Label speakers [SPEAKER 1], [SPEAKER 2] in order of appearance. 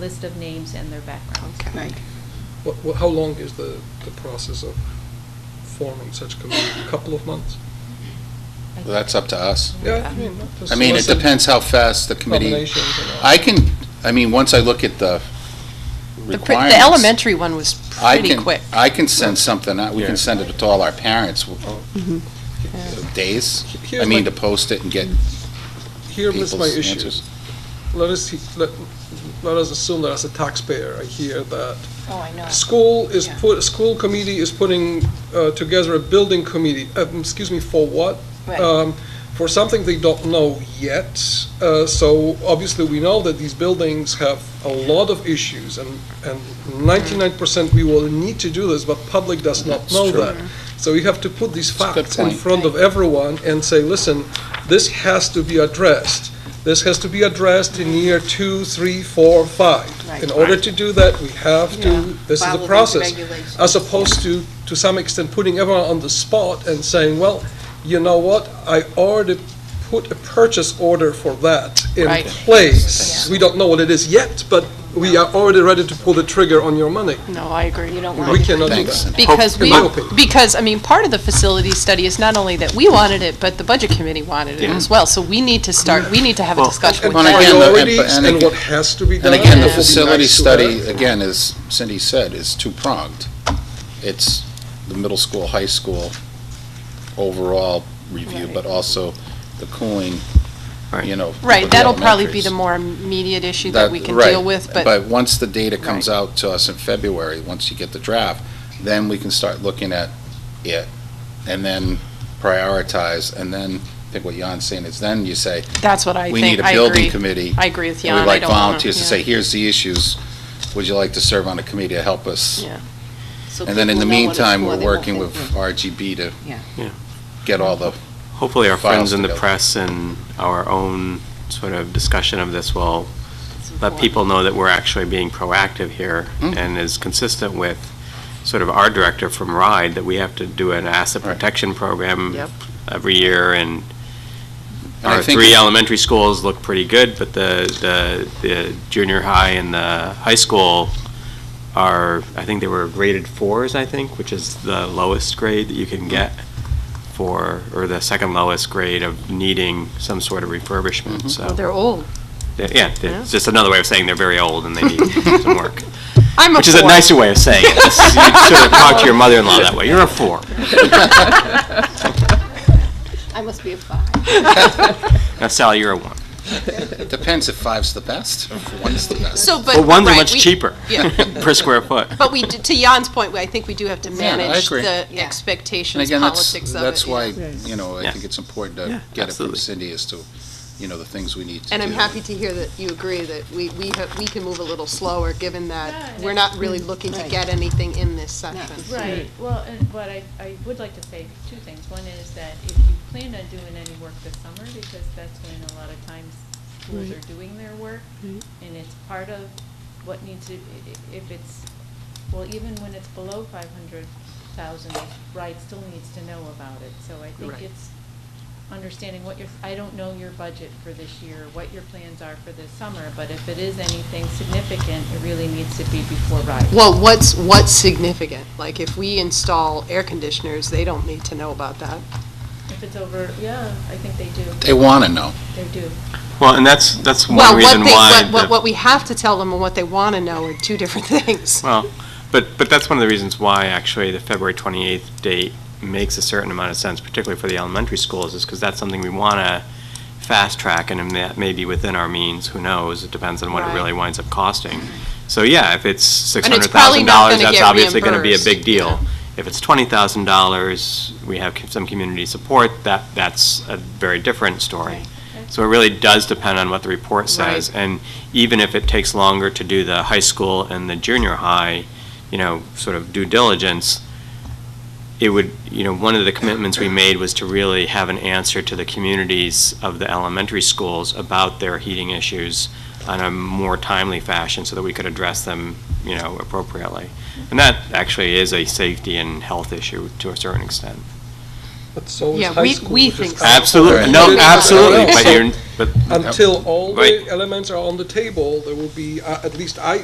[SPEAKER 1] list of names and their backgrounds.
[SPEAKER 2] Right.
[SPEAKER 3] What, what, how long is the, the process of forming such a committee? A couple of months?
[SPEAKER 1] I
[SPEAKER 4] Well, That's up to us.
[SPEAKER 3] Yeah, I mean, just
[SPEAKER 4] I mean, it
[SPEAKER 3] solicit
[SPEAKER 4] depends how fast the committee,
[SPEAKER 3] nominations and all.
[SPEAKER 4] I can, I mean, once I look at the
[SPEAKER 2] The
[SPEAKER 4] requirements.
[SPEAKER 2] pr- The elementary one was
[SPEAKER 4] I
[SPEAKER 2] pretty
[SPEAKER 4] can-
[SPEAKER 2] quick.
[SPEAKER 4] I can send something, out. we
[SPEAKER 5] Yeah.
[SPEAKER 4] can send it to all our parents, w-
[SPEAKER 2] Mm-hmm.
[SPEAKER 4] days, I
[SPEAKER 3] Oh. Here's
[SPEAKER 4] mean,
[SPEAKER 3] my-
[SPEAKER 4] to post it and get
[SPEAKER 3] Here
[SPEAKER 4] people's
[SPEAKER 3] was my issue.
[SPEAKER 4] answers.
[SPEAKER 3] Let us, he- let, let us assume that as a taxpayer, I hear that
[SPEAKER 2] Oh, I know.
[SPEAKER 3] school is
[SPEAKER 2] Yeah.
[SPEAKER 3] put, school committee is putting uh, together a building committee, um, excuse me, for what? um, for something they don't know yet. Uh, So obviously, we know that these buildings have a lot of issues, and and 99% we will need to do this, but public does not
[SPEAKER 4] That's
[SPEAKER 3] know
[SPEAKER 4] true.
[SPEAKER 3] that. So we have to put these
[SPEAKER 4] a good
[SPEAKER 3] facts in
[SPEAKER 4] point.
[SPEAKER 3] front of everyone and say, listen, this has to be addressed. This has to be addressed in year two, three, four, five.
[SPEAKER 2] Right.
[SPEAKER 3] In order to do that, we have to,
[SPEAKER 2] Yeah.
[SPEAKER 3] this is
[SPEAKER 2] Follow
[SPEAKER 3] a
[SPEAKER 2] those
[SPEAKER 3] process.
[SPEAKER 2] regulations.
[SPEAKER 3] As opposed to, to some extent, putting everyone on the spot and saying, well, you know what, I already put a purchase order for that in
[SPEAKER 2] Right.
[SPEAKER 3] place. We don't know what it is yet, but we are already ready to pull the trigger on your money.
[SPEAKER 2] No, I agree. You don't
[SPEAKER 3] We cannot do
[SPEAKER 4] Thanks.
[SPEAKER 3] that.
[SPEAKER 2] Because
[SPEAKER 3] In
[SPEAKER 2] we,
[SPEAKER 3] my opinion.
[SPEAKER 2] because, I mean, part of the facility study is not only that we wanted it, but the budget committee wanted it
[SPEAKER 5] Yeah.
[SPEAKER 2] as well. So we need to start, we need to have a
[SPEAKER 5] Well,
[SPEAKER 2] discussion
[SPEAKER 3] And
[SPEAKER 2] with
[SPEAKER 4] Well, and
[SPEAKER 2] them.
[SPEAKER 4] again, the- and-
[SPEAKER 3] priorities
[SPEAKER 4] and
[SPEAKER 3] and
[SPEAKER 4] again-
[SPEAKER 3] what has to be done.
[SPEAKER 4] And again, the
[SPEAKER 3] It would be
[SPEAKER 4] facility
[SPEAKER 3] nice to
[SPEAKER 4] study,
[SPEAKER 3] have.
[SPEAKER 4] again, as Cindy said, is two-pronged. It's the middle school, high school overall review, but also the cooling, you know.
[SPEAKER 2] Right,
[SPEAKER 4] with the
[SPEAKER 2] that'll probably be
[SPEAKER 4] elementaries.
[SPEAKER 2] the more immediate issue that we can
[SPEAKER 4] right.
[SPEAKER 2] deal with, but
[SPEAKER 4] But once the data comes out to us in February, once you get the draft, then we can start looking at it and then prioritize, and then, I think what Jan's saying is then you say,
[SPEAKER 2] that's what I think.
[SPEAKER 4] we need a
[SPEAKER 2] I
[SPEAKER 4] building
[SPEAKER 2] agree.
[SPEAKER 4] committee.
[SPEAKER 2] I agree with
[SPEAKER 4] And
[SPEAKER 2] Jan. I
[SPEAKER 4] we'd like
[SPEAKER 2] don't wanna-
[SPEAKER 4] volunteers to
[SPEAKER 2] yeah.
[SPEAKER 4] say, here's the issues, would you like to serve on a committee to help us?
[SPEAKER 2] Yeah.
[SPEAKER 4] And then in the meantime, we're working with RGB to
[SPEAKER 6] Yeah.
[SPEAKER 5] Yeah.
[SPEAKER 4] get all the,
[SPEAKER 5] Hopefully, our
[SPEAKER 4] Files
[SPEAKER 5] friends in the
[SPEAKER 4] together.
[SPEAKER 5] press and our own sort of discussion of this will let people know that we're actually being proactive here
[SPEAKER 4] Mm.
[SPEAKER 5] and is consistent with sort of our director from RIDE, that we have to do an asset
[SPEAKER 4] Right.
[SPEAKER 5] protection program
[SPEAKER 2] Yep.
[SPEAKER 5] every year,
[SPEAKER 4] And
[SPEAKER 5] and
[SPEAKER 4] I
[SPEAKER 5] our
[SPEAKER 4] think
[SPEAKER 5] three
[SPEAKER 4] it's-
[SPEAKER 5] elementary schools look pretty good, but the, the, the junior high and the high school are, I think they were graded fours, I think, which is the lowest grade that you can get for, or the second lowest grade of needing some sort of refurbishment, so.
[SPEAKER 7] They're old.
[SPEAKER 5] Yeah, Yeah, it's just another way of saying they're very old and they need some work.
[SPEAKER 2] I'm a
[SPEAKER 5] Which is a
[SPEAKER 2] four.
[SPEAKER 5] nicer way of saying it. This is- You sort of talk to your mother-in-law that way. You're a four.
[SPEAKER 6] I must be a five.
[SPEAKER 5] Now Sally, you're a one.
[SPEAKER 4] it depends if five's the best, if one's the best.
[SPEAKER 2] So, but.
[SPEAKER 5] But ones are
[SPEAKER 2] right,
[SPEAKER 5] much
[SPEAKER 2] we-
[SPEAKER 5] cheaper
[SPEAKER 2] Yeah.
[SPEAKER 5] per square foot.
[SPEAKER 2] But we, d- to Jan's point, I think we do have to
[SPEAKER 4] Yeah, I
[SPEAKER 2] manage
[SPEAKER 4] agree.
[SPEAKER 2] the
[SPEAKER 4] And
[SPEAKER 6] Yeah.
[SPEAKER 2] expectations,
[SPEAKER 4] again, that's,
[SPEAKER 2] politics of it.
[SPEAKER 4] that's
[SPEAKER 2] yeah.
[SPEAKER 4] why, you know, I
[SPEAKER 5] Yeah.
[SPEAKER 4] think it's important to
[SPEAKER 5] Yeah,
[SPEAKER 4] get it from
[SPEAKER 5] absolutely.
[SPEAKER 4] Cindy as to, you know, the things we need to do.
[SPEAKER 6] And I'm happy to hear that you agree that we, we, have- we can move a little slower, given that we're not really looking to get anything in this session.
[SPEAKER 1] Right, well, and, but I, I would like to say two things. One is that if you plan on doing any work this summer, because that's when a lot of times schools are doing their work, and it's part of what needs to, i- i- if it's, well, even when it's below five hundred thousand, Ride still needs to know about it. So I think
[SPEAKER 6] Right.
[SPEAKER 1] it's understanding what your, I don't know your budget for this year, what your plans are for this summer, but if it is anything significant, it really needs to be before Ride.
[SPEAKER 2] Well, what's, what's significant? Like, if we install air conditioners, they don't need to know about that.
[SPEAKER 1] If it's over, yeah, I think they do,
[SPEAKER 4] They want to know.
[SPEAKER 1] they do.
[SPEAKER 5] Well, and that's, that's
[SPEAKER 2] Well,
[SPEAKER 5] one
[SPEAKER 2] what
[SPEAKER 5] reason
[SPEAKER 2] they-
[SPEAKER 5] why.
[SPEAKER 2] what- What,
[SPEAKER 5] the-
[SPEAKER 2] what we have to tell them and what they want to know are two different things.
[SPEAKER 5] Well, but, but that's one of the reasons why actually the February 28th date makes a certain amount of sense, particularly for the elementary schools, is because that's something we want to fast track and that may be within our means, who knows? It depends on what it
[SPEAKER 2] Right.
[SPEAKER 5] really winds up costing. So yeah, if it's
[SPEAKER 2] And
[SPEAKER 5] $600,000,
[SPEAKER 2] it's probably not gonna
[SPEAKER 5] that's
[SPEAKER 2] get
[SPEAKER 5] obviously going to be a big
[SPEAKER 2] reimbursed, you
[SPEAKER 5] deal.
[SPEAKER 2] know.
[SPEAKER 5] If it's $20,000, we have c- some community support, that, that's a very different story. So it really does depend on what the report says. And even if it takes longer to do the high school and the junior high, you know, sort of due diligence, it would, you know, one of the commitments we made was to really have an answer to the communities of the elementary schools about their heating issues on a more timely fashion so that we could address them, you know, appropriately. And that actually is a safety and health issue to a certain extent.
[SPEAKER 3] but so is
[SPEAKER 2] Yeah,
[SPEAKER 3] high
[SPEAKER 2] we-
[SPEAKER 3] school.
[SPEAKER 2] we
[SPEAKER 3] which is
[SPEAKER 2] think so.
[SPEAKER 3] out-
[SPEAKER 5] Absolutely, no,
[SPEAKER 3] Right.
[SPEAKER 5] absolutely, but you're, but
[SPEAKER 3] Until all the
[SPEAKER 5] Right.
[SPEAKER 3] elements are on the table, there will be, uh, at least I